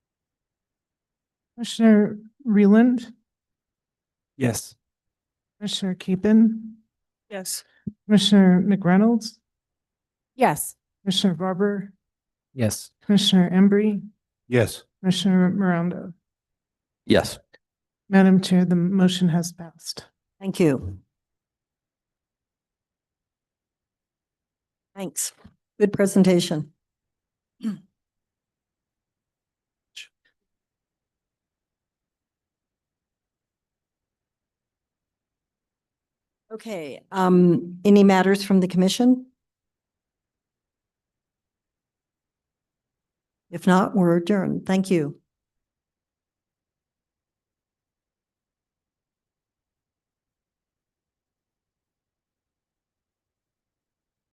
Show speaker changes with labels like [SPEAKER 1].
[SPEAKER 1] Commissioner Reland,
[SPEAKER 2] Yes.
[SPEAKER 1] Commissioner Keppen,
[SPEAKER 3] Yes.
[SPEAKER 1] Commissioner McReynolds,
[SPEAKER 3] Yes.
[SPEAKER 1] Commissioner Barber,
[SPEAKER 2] Yes.
[SPEAKER 1] Commissioner Embry,
[SPEAKER 2] Yes.
[SPEAKER 1] Commissioner Morondo.
[SPEAKER 2] Yes.
[SPEAKER 1] Madam Chair, the motion has passed.
[SPEAKER 3] Thank you. Thanks. Good presentation. Okay, um, any matters from the commission? If not, we're adjourned. Thank you.